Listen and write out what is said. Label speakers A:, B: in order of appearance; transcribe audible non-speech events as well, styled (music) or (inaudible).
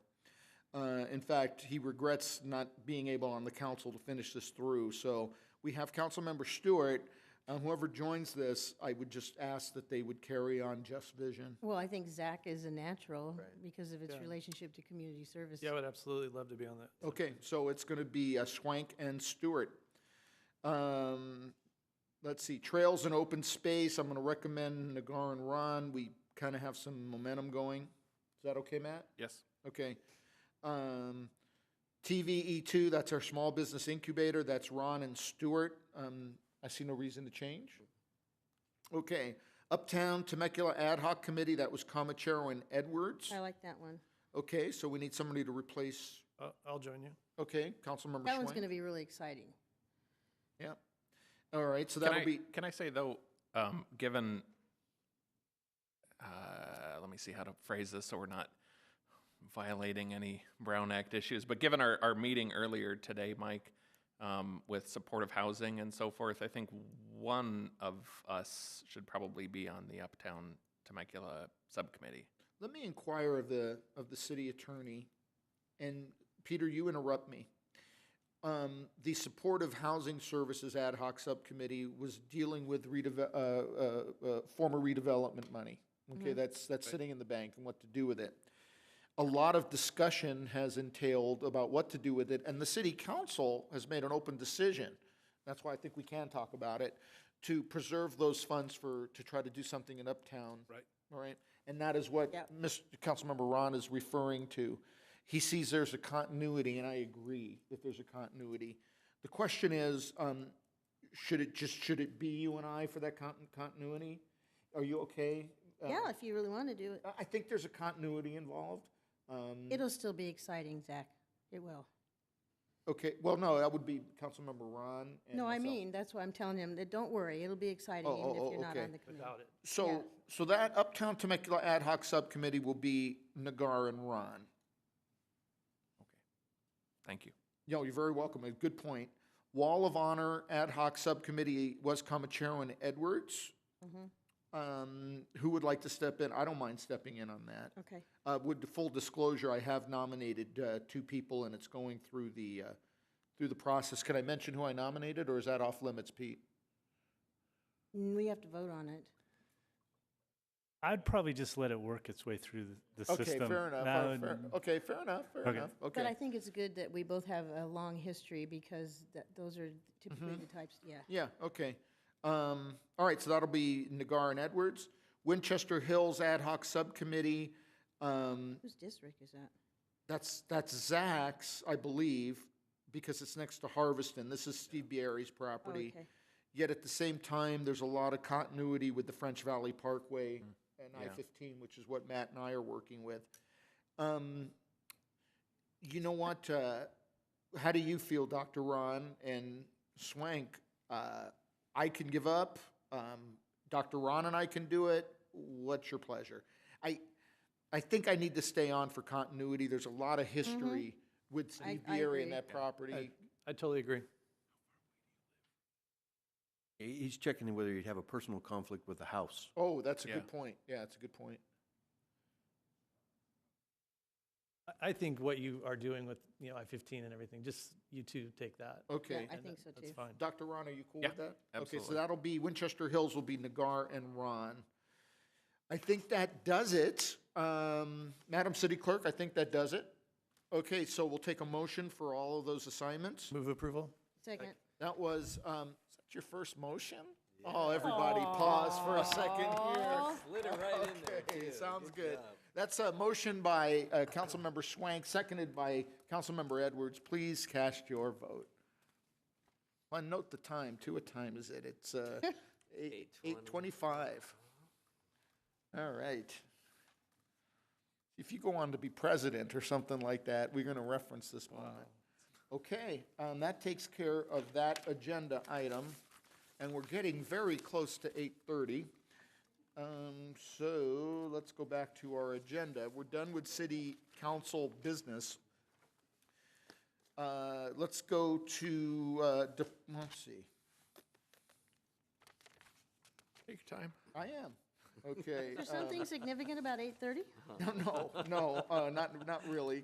A: Uh, in fact, he regrets not being able on the council to finish this through. So we have Councilmember Stewart. Uh, Whoever joins this, I would just ask that they would carry on Jeff's vision.
B: Well, I think Zach is a natural because of its relationship to community service.
C: Yeah, I would absolutely love to be on that.
A: Okay, so it's going to be uh, Schwank and Stewart. Um, Let's see, Trails and Open Space, I'm going to recommend Nagar and Ron. We kind of have some momentum going. Is that okay, Matt?
C: Yes.
A: Okay. Um, TVE2, that's our small business incubator. That's Ron and Stewart. Um, I see no reason to change. Okay. Uptown Temecula Ad Hoc Committee, that was Comachero and Edwards.
B: I like that one.
A: Okay, so we need somebody to replace,
C: I'll, I'll join you.
A: okay, Councilmember
B: That one's going to
A: Schwank.
B: be really exciting.
A: Yeah. All right, so
D: Can
A: that'll
D: I-
A: be,
D: Can I say though, um, given, uh, let me see how to phrase this so we're not violating any Brown Act issues, but given our, our meeting earlier today, Mike, um, with supportive housing and so forth, I think one of us should probably be on the Uptown Temecula Subcommittee.
A: let me inquire of the, of the city attorney, and Peter, you interrupt me. Um, the Supportive Housing Services Ad Hoc Subcommittee was dealing with redeve- uh, uh, uh, former redevelopment money. Okay, that's, that's sitting in the bank and what to do with it. A lot of discussion has entailed about what to do with it, and the city council has made an open decision. That's why I think we can talk about it, to preserve those funds for, to try to do something in Uptown.
C: Right.
A: All right, and that is what
B: Yep.
A: Mr. Councilmember Ron is referring to. He sees there's a continuity, and I agree that there's a continuity. The question is, um, should it just, should it be you and I for that con- continuity? Are you okay? Uh,
B: Yeah, if you really want to do it.
A: I- I think there's a continuity involved. Um,
B: It'll still be exciting, Zach. It will.
A: Okay, well, no, that would be Councilmember Ron and
B: No, I
A: myself.
B: mean, that's why I'm telling him that don't worry, it'll be exciting
A: Oh,
B: even
A: oh,
B: if
A: oh,
B: you're not
A: okay.
B: on the committee.
C: Without it.
A: So,
B: Yeah.
A: so that Uptown Temecula Ad Hoc Subcommittee will be Nagar and Ron.
D: Thank you.
A: No, you're very welcome. A good point. Wall of Honor Ad Hoc Subcommittee was Comachero and Edwards.
B: Mm-hmm.
A: Um, Who would like to step in? I don't mind stepping in on that.
B: Okay.
A: Uh, With the full disclosure, I have nominated uh, two people, and it's going through the, uh, through the process. Can I mention who I nominated, or is that off limits, Pete?
B: Mm, We have to vote on it.
E: I'd probably just let it work its way through the, the
A: Okay,
E: system.
A: fair enough.
E: That
A: Uh, fair-
E: would-
A: Okay, fair enough, fair
E: Okay.
A: enough.
B: But I
A: Okay.
B: think it's good that we both have a long history because that, those are typically the types, yeah.
A: Yeah, okay. Um, All right, so that'll be Nagar and Edwards. Winchester Hills Ad Hoc Subcommittee, um,
B: Whose district is that?
A: That's, that's Zach's, I believe, because it's next to Harveston. This is Steve Bieri's property.
B: Oh, okay.
A: Yet at the same time, there's a lot of continuity with the French Valley Parkway and I-15, which is what Matt and I are working with. Um, You know what, uh, how do you feel, Dr. Ron and Swank? Uh, I can give up, um, Dr. Ron and I can do it, what's your pleasure? I, I think I need to stay on for continuity. There's a lot of history with
B: Mm-hmm. I-
A: Steve
B: I
A: Bieri
B: agree.
A: and that property.
C: I totally agree.
F: He- He's checking whether you'd have a personal conflict with the house.
A: Oh, that's a
D: Yeah.
A: good point. Yeah, that's a good point.
C: I- I think what you are doing with, you know, I-15 and everything, just you two take that.
A: Okay.
B: I
C: and
B: think so,
C: That's
B: too.
C: fine.
A: Dr. Ron, are you cool
D: Yeah,
A: with that? Okay, so
D: absolutely.
A: that'll be Winchester Hills will be Nagar and Ron. I think that does it. Um, Madam City Clerk, I think that does it. Okay, so we'll take a motion for all of those assignments.
C: Move approval?
B: Second.
A: That was, um, is that your first motion? Oh, everybody pause for a second here.
G: Slid it right in there,
A: Okay,
G: too.
A: sounds good. That's a motion by uh, Councilmember Schwank, seconded by Councilmember Edwards. Please cast your vote. Well, note the time, too. What time is it?
G: (laughs)
A: It's uh, eight- 8:25. All right. If you go on to be president or something like that, we're going to reference this moment. Okay, um, that takes care of that agenda item, and we're getting very close to 8:30. Um, so let's go back to our agenda. We're done with city council business. Uh, let's go to, uh, de- let's see,
D: Take your time.
A: I am, okay.
B: There's
A: uh, (laughs)
B: something significant about 8:30?
A: No, no, uh, not, not really.